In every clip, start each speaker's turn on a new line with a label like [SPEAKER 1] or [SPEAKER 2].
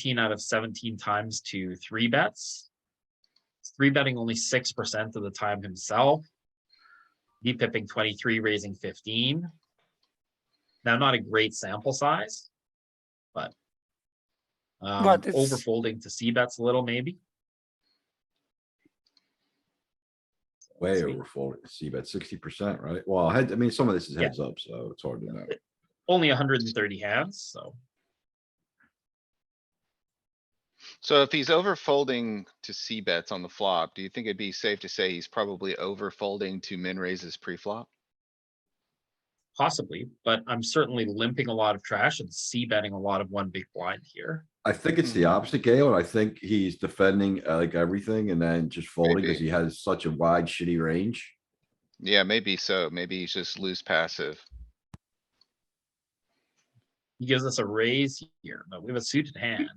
[SPEAKER 1] 15 out of 17 times to three bets. Three betting only 6% of the time himself. Deep pipping 23, raising 15. Now, not a great sample size, but um,
[SPEAKER 2] But it's-
[SPEAKER 1] overfolding to C bets a little maybe.
[SPEAKER 3] Way
[SPEAKER 1] Sweet.
[SPEAKER 3] over folding, see about sixty percent, right? Well, head, I mean, some of this is
[SPEAKER 1] Yeah.
[SPEAKER 3] heads up, so it's hard to know.
[SPEAKER 1] Only 130 hands, so
[SPEAKER 4] So if he's over folding to C bets on the flop, do you think it'd be safe to say he's probably over folding to min raises pre-flop?
[SPEAKER 1] possibly, but I'm certainly limping a lot of trash and C betting a lot of one big blind here.
[SPEAKER 3] I think it's the
[SPEAKER 4] Mhm.
[SPEAKER 3] opposite, Galen. I think he's defending uh, like everything and then just folding because
[SPEAKER 4] Maybe.
[SPEAKER 3] he has such a wide shitty range.
[SPEAKER 4] Yeah, maybe so. Maybe he's just loose passive.
[SPEAKER 1] He gives us a raise here, but we have a suited hand.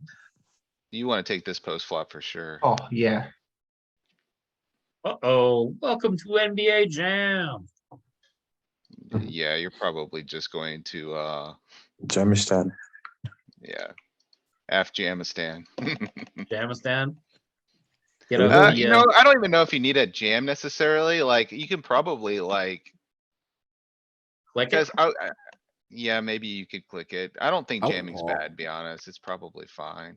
[SPEAKER 4] You wanna take this post flop for sure.
[SPEAKER 5] Oh, yeah.
[SPEAKER 1] Uh-oh, welcome to NBA Jam.
[SPEAKER 4] Yeah, you're probably just going to, uh,
[SPEAKER 6] Jamistan.
[SPEAKER 4] yeah. F Jamistan.
[SPEAKER 1] Jamistan. Get
[SPEAKER 4] Mm. Uh,
[SPEAKER 1] over
[SPEAKER 4] you
[SPEAKER 1] the,
[SPEAKER 4] know,
[SPEAKER 1] uh,
[SPEAKER 4] I don't even know if you need a jam necessarily. Like, you can probably like,
[SPEAKER 1] click it.
[SPEAKER 4] cause I, I- yeah, maybe you could click it. I don't think
[SPEAKER 3] I would
[SPEAKER 4] jamming's
[SPEAKER 3] call.
[SPEAKER 4] bad, to be honest. It's probably fine.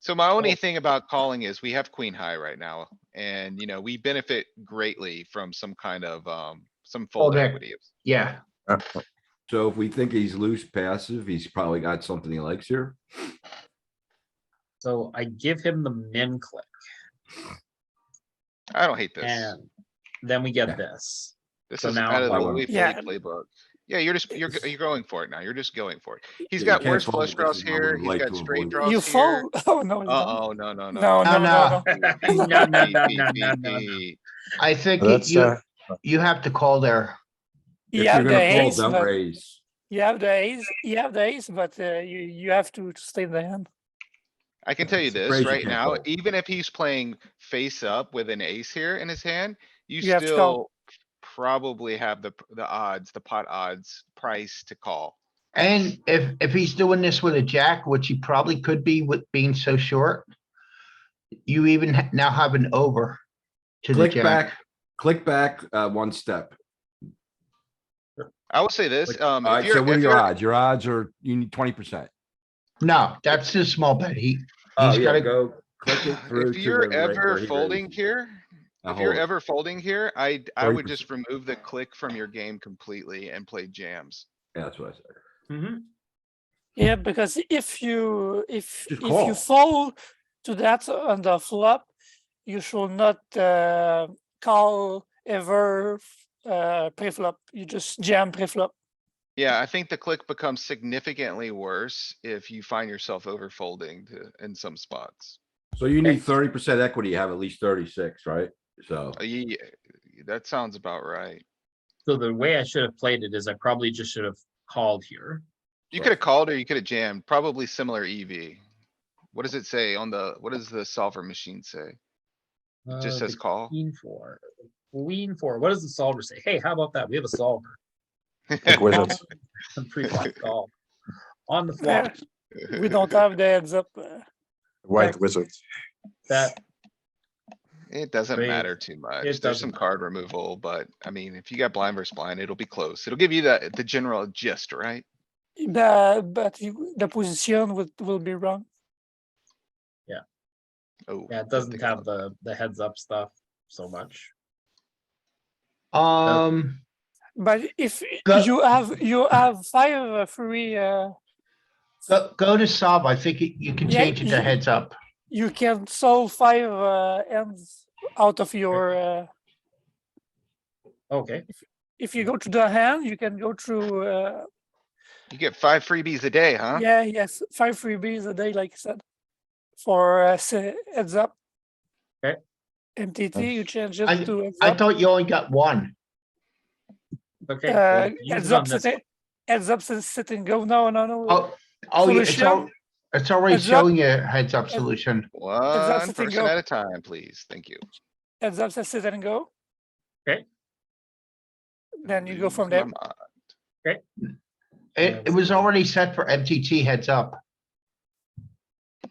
[SPEAKER 4] So my
[SPEAKER 3] Oh.
[SPEAKER 4] only thing about calling is we have queen high right now and, you know, we benefit greatly from some kind of, um, some fold
[SPEAKER 5] Fallback.
[SPEAKER 4] equity.
[SPEAKER 5] Yeah.
[SPEAKER 3] So if we think he's loose passive, he's probably got something he likes here.
[SPEAKER 1] So I give him the min click
[SPEAKER 4] I don't hate this.
[SPEAKER 1] and then we get
[SPEAKER 3] Yeah.
[SPEAKER 1] this.
[SPEAKER 4] This
[SPEAKER 1] so
[SPEAKER 4] is
[SPEAKER 1] now
[SPEAKER 3] I'm
[SPEAKER 4] out of the
[SPEAKER 3] following.
[SPEAKER 4] Louis
[SPEAKER 2] Yeah.
[SPEAKER 4] Philippe playbook. Yeah, you're just, you're, go- you're going for it now. You're just going for it. He's
[SPEAKER 3] you
[SPEAKER 4] got
[SPEAKER 3] can't
[SPEAKER 4] worse
[SPEAKER 3] fold
[SPEAKER 4] flush
[SPEAKER 3] because
[SPEAKER 4] draws
[SPEAKER 3] I would
[SPEAKER 4] here. He's
[SPEAKER 3] like
[SPEAKER 4] got
[SPEAKER 3] to
[SPEAKER 4] straight
[SPEAKER 3] avoid-
[SPEAKER 4] draws
[SPEAKER 2] You
[SPEAKER 4] here.
[SPEAKER 2] fold? Oh, no. you don't.
[SPEAKER 4] Uh-oh, no, no, Oh,
[SPEAKER 2] No,
[SPEAKER 4] no.
[SPEAKER 2] no,
[SPEAKER 5] No,
[SPEAKER 2] no,
[SPEAKER 5] no.
[SPEAKER 2] no.
[SPEAKER 1] No, no, no, no, no, no.
[SPEAKER 4] TPP.
[SPEAKER 5] I think you-
[SPEAKER 6] That's,
[SPEAKER 5] you,
[SPEAKER 6] uh,
[SPEAKER 5] you have to call there.
[SPEAKER 3] If
[SPEAKER 2] You have
[SPEAKER 3] you're
[SPEAKER 2] the
[SPEAKER 3] gonna fold,
[SPEAKER 2] ace,
[SPEAKER 3] don't
[SPEAKER 2] but
[SPEAKER 3] raise.
[SPEAKER 2] you have the ace, you have the ace, but uh, you, you have to to stay in the hand.
[SPEAKER 4] I can tell you
[SPEAKER 3] Raise
[SPEAKER 4] this
[SPEAKER 3] your
[SPEAKER 4] right
[SPEAKER 3] hand
[SPEAKER 4] now,
[SPEAKER 3] fold.
[SPEAKER 4] even if he's playing face up with an ace here in his hand, you
[SPEAKER 2] You have to call.
[SPEAKER 4] still probably have the, the odds, the pot odds price to call.
[SPEAKER 5] And if, if he's doing this with a jack, which he probably could be with being so short, you even ha- now have an over to the
[SPEAKER 3] Click
[SPEAKER 5] jack.
[SPEAKER 3] back, click back, uh, one step.
[SPEAKER 4] I will say this, um, if
[SPEAKER 3] Alright, so
[SPEAKER 4] you're,
[SPEAKER 3] what are
[SPEAKER 4] if
[SPEAKER 3] your
[SPEAKER 4] you're,
[SPEAKER 3] odds? Your odds are, you need twenty percent.
[SPEAKER 5] No, that's a small bet. He,
[SPEAKER 3] Oh,
[SPEAKER 5] He's
[SPEAKER 3] yeah,
[SPEAKER 5] gotta-
[SPEAKER 3] go. Click it through
[SPEAKER 4] if
[SPEAKER 3] to
[SPEAKER 4] you're
[SPEAKER 3] the ra- where
[SPEAKER 4] ever
[SPEAKER 3] he
[SPEAKER 4] folding
[SPEAKER 3] raises.
[SPEAKER 4] here,
[SPEAKER 3] I
[SPEAKER 4] if you're
[SPEAKER 3] hold.
[SPEAKER 4] ever folding here, I, I would just
[SPEAKER 3] 40%.
[SPEAKER 4] remove the click from your game completely and play jams.
[SPEAKER 3] Yeah, that's what I said.
[SPEAKER 1] Mhm.
[SPEAKER 2] Yeah, because if you, if,
[SPEAKER 3] Just
[SPEAKER 2] if you
[SPEAKER 3] call.
[SPEAKER 2] fold to that on the flop, you should not uh, call ever uh, pre-flop. You just jam pre-flop.
[SPEAKER 4] Yeah, I think the click becomes significantly worse if you find yourself over folding to, in some spots.
[SPEAKER 3] So you need thirty percent equity, you have at least thirty-six, right? So.
[SPEAKER 4] Uh, ye- that sounds about right.
[SPEAKER 1] So the way I should have played it is I probably just should have called here.
[SPEAKER 4] You
[SPEAKER 3] Right.
[SPEAKER 4] could have called or you could have jammed, probably similar EV. What does it say on the, what does the solver machine say? It just
[SPEAKER 1] Uh, the
[SPEAKER 4] says call.
[SPEAKER 1] Queen four, queen four. What does the solver say? Hey, how about that? We have a solver.
[SPEAKER 6] Like wizards.
[SPEAKER 1] Some pre-flop call. On the flop,
[SPEAKER 2] We don't have the heads up. uh,
[SPEAKER 6] White wizards.
[SPEAKER 1] that,
[SPEAKER 4] It doesn't
[SPEAKER 1] Raise.
[SPEAKER 4] matter too much. There's
[SPEAKER 1] doesn't
[SPEAKER 4] some card removal, but I mean, if you got blind versus blind, it'll be close. It'll give you the, the general gist, right?
[SPEAKER 2] The, but you, the position will, will be wrong.
[SPEAKER 4] Oh.
[SPEAKER 1] yeah, it
[SPEAKER 4] don't
[SPEAKER 1] doesn't
[SPEAKER 4] think I
[SPEAKER 1] have
[SPEAKER 4] looked.
[SPEAKER 1] the, the heads up stuff so much.
[SPEAKER 5] um,
[SPEAKER 2] But if y-
[SPEAKER 5] Go-
[SPEAKER 2] you have you have five uh, free, uh,
[SPEAKER 5] go, go to sub. I think you- you can
[SPEAKER 2] Yeah,
[SPEAKER 5] change it to
[SPEAKER 2] you-
[SPEAKER 5] heads up.
[SPEAKER 2] you can solve five uh, ends out of your. Uh,
[SPEAKER 1] Okay,
[SPEAKER 2] if you go to the hand, you can go through. Uh,
[SPEAKER 4] You get five freebies a day, huh?
[SPEAKER 2] Yeah, yes, five freebies a day, like I said, for uh, se- heads up.
[SPEAKER 1] Okay.
[SPEAKER 2] MTT, you change it to heads
[SPEAKER 5] I
[SPEAKER 2] up. Uh,
[SPEAKER 5] thought you only got one.
[SPEAKER 1] okay. well,
[SPEAKER 2] Uh,
[SPEAKER 1] use
[SPEAKER 2] heads
[SPEAKER 1] it on
[SPEAKER 2] up,
[SPEAKER 1] this
[SPEAKER 2] sit, heads up, sit, sit and go. No, no, no.
[SPEAKER 5] Oh, oh, yeah, it's,
[SPEAKER 2] Solution.
[SPEAKER 5] al- it's already
[SPEAKER 2] Heads up.
[SPEAKER 5] showing you a heads up
[SPEAKER 2] Heads-
[SPEAKER 5] solution.
[SPEAKER 4] One
[SPEAKER 2] the thing,
[SPEAKER 4] person
[SPEAKER 2] go.
[SPEAKER 4] at a time, please. Thank you.
[SPEAKER 2] Heads up, sit, sit and go.
[SPEAKER 1] Okay.
[SPEAKER 2] Then you go
[SPEAKER 4] Lose
[SPEAKER 2] from
[SPEAKER 4] my
[SPEAKER 2] there.
[SPEAKER 4] mind.
[SPEAKER 5] It, it was already set for MTT heads up.